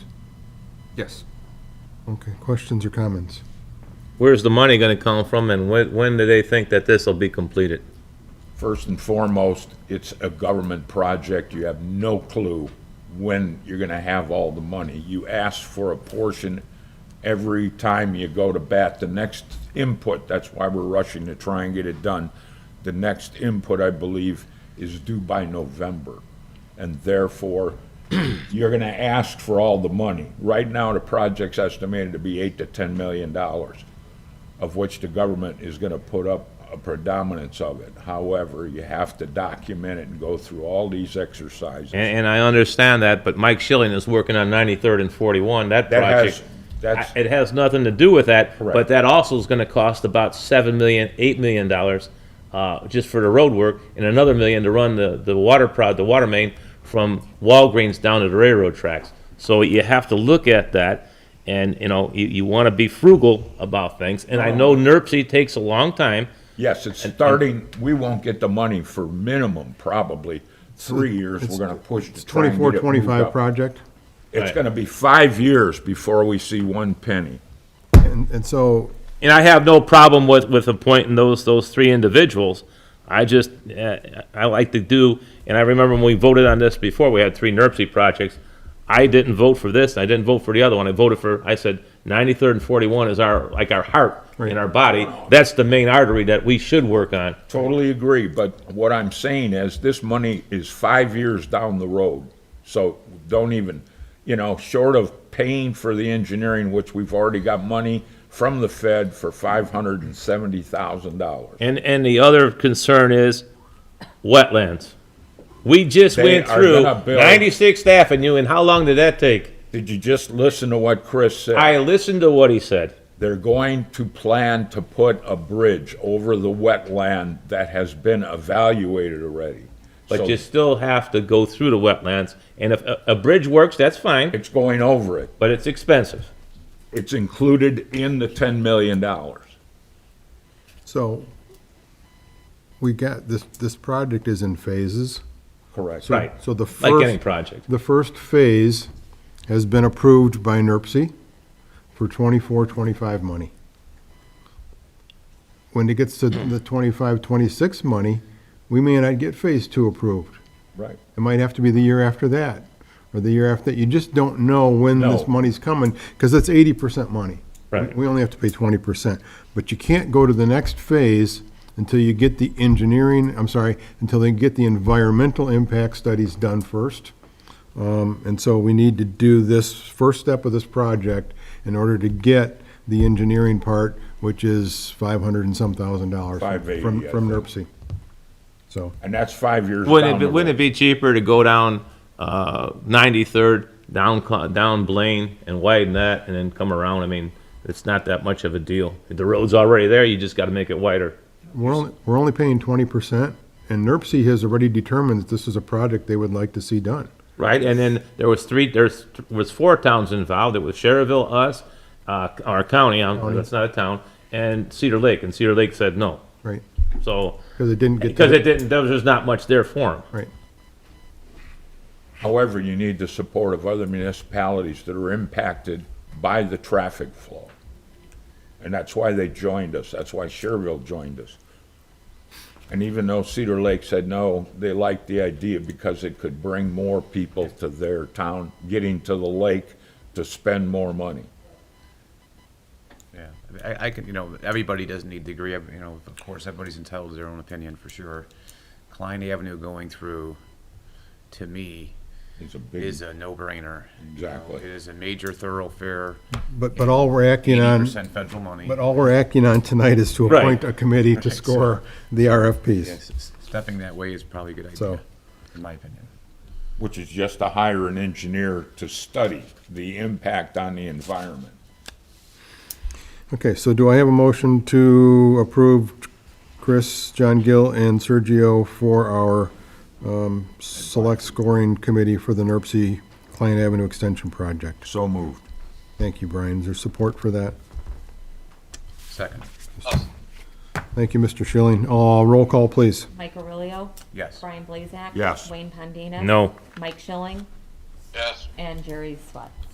Yes. Okay, questions or comments? Where's the money gonna come from and when, when do they think that this'll be completed? First and foremost, it's a government project. You have no clue when you're going to have all the money. You ask for a portion every time you go to bat. The next input, that's why we're rushing to try and get it done. The next input, I believe, is due by November. And therefore, you're going to ask for all the money. Right now, the project's estimated to be 8 to 10 million dollars of which the government is going to put up a predominance of it. However, you have to document it and go through all these exercises. And, and I understand that, but Mike Schilling is working on 93rd and 41, that That has, project. that's, I- It has nothing to do with that, but Correct. that also is gonna cost about 7 million, 8 million dollars, uh, just for the road work, and another million to run the, the water prod, the water main from Walgreens down to the railroad tracks. So you have to look at that, and, you know, you, you wanna be frugal about things, and I Uh-huh. know NERC takes a long time, yes, it's starting, we won't get the money for minimum, probably, three years, we're going to push to try and Twenty-four, get it moved twenty-five up. project? It's going to be five years before we see one penny. And, and so, And I have no problem with, with appointing those, those three individuals. I just, uh, I like to do, and I remember when we voted on this before, we had three NERC projects. I didn't vote for this, I didn't vote for the other one, I voted for, I said, 93rd and 41 is our, like our heart in our body. That's the main artery that we should work on. Totally agree, but what I'm saying is, this money is five years down the road. So don't even, you know, short of paying for the engineering, which we've already got money from the Fed for five hundred and seventy thousand dollars. And, and the other concern is wetlands. We just They went are through gonna build- 96th Avenue, and how long did that take? Did you just listen to what Chris said? I listened to what he said. They're going to plan to put a bridge over the wetland that has been evaluated already. So But you still have to go through the wetlands, and if a, a bridge works, that's fine, It's going over it. but it's expensive. It's included in the ten million dollars. so, we got, this, this project is in phases. Correct. Right. So the first. Like any project. The first phase has been approved by NERC for twenty-four, twenty-five money. When it gets to the twenty-five, twenty-six money, we may not get phase two approved. Right. It might have to be the year after that, or the year after that. You just don't know when this No. money's coming, because it's eighty percent money. Right. We only have to pay twenty percent. But you can't go to the next phase until you get the engineering, I'm sorry, until they get the environmental impact studies done first. Um, and so we need to do this first step of this project in order to get the engineering part, which is five hundred and some thousand dollars. from- 580, From, I from think. NERC. So, And that's five years down Wouldn't the it, wouldn't it be cheaper to go down, uh, 93rd, down, Cl- down Blaine and widen that and then come around? I mean, it's not that much of a deal. The road's already there, you just gotta make it wider. We're only, we're only paying twenty percent, and NERC has already determined that this is a project they would like to see done. Right, and then there was three, there's, was four towns involved, it was Sherrville, us, uh, our county, um, that's not a town, and Cedar Lake, and Cedar Lake said no. Right, So, because it didn't get, because it to- didn't, there was just not much there for them. right, However, you need the support of other municipalities that are impacted by the traffic flow. And that's why they joined us. That's why Sherville joined us. And even though Cedar Lake said no, they liked the idea because it could bring more people to their town, getting to the lake to spend more money. Yeah, I mean, I, I can, you know, everybody doesn't need to agree, every- you know, of course, everybody's entitled to their own opinion for sure. Klein Avenue going through, to me, It's a big, is a no-brainer. You know, Exactly. It is a major thoroughfare, but, but all we're acting eighty on, percent federal money. but all we're acting on tonight is to Right. appoint a committee to so- score the RFPs, Yes, s- Stepping that way is probably a good So- idea, in my opinion. which is just to hire an engineer to study the impact on the environment. Okay, so do I have a motion to approve Chris, John Gill, and Sergio for our, um, select scoring committee for the NERC Client Avenue Extension Project? So moved. Thank you, Brian. Is there support for that? Second, Thank you, Mr. Schilling. Uh, roll call, please. Mike Aurelio. yes. Brian Blazak. Yes. Wayne Pondinas. No. Mike Schilling. Yes. And Jerry Swift.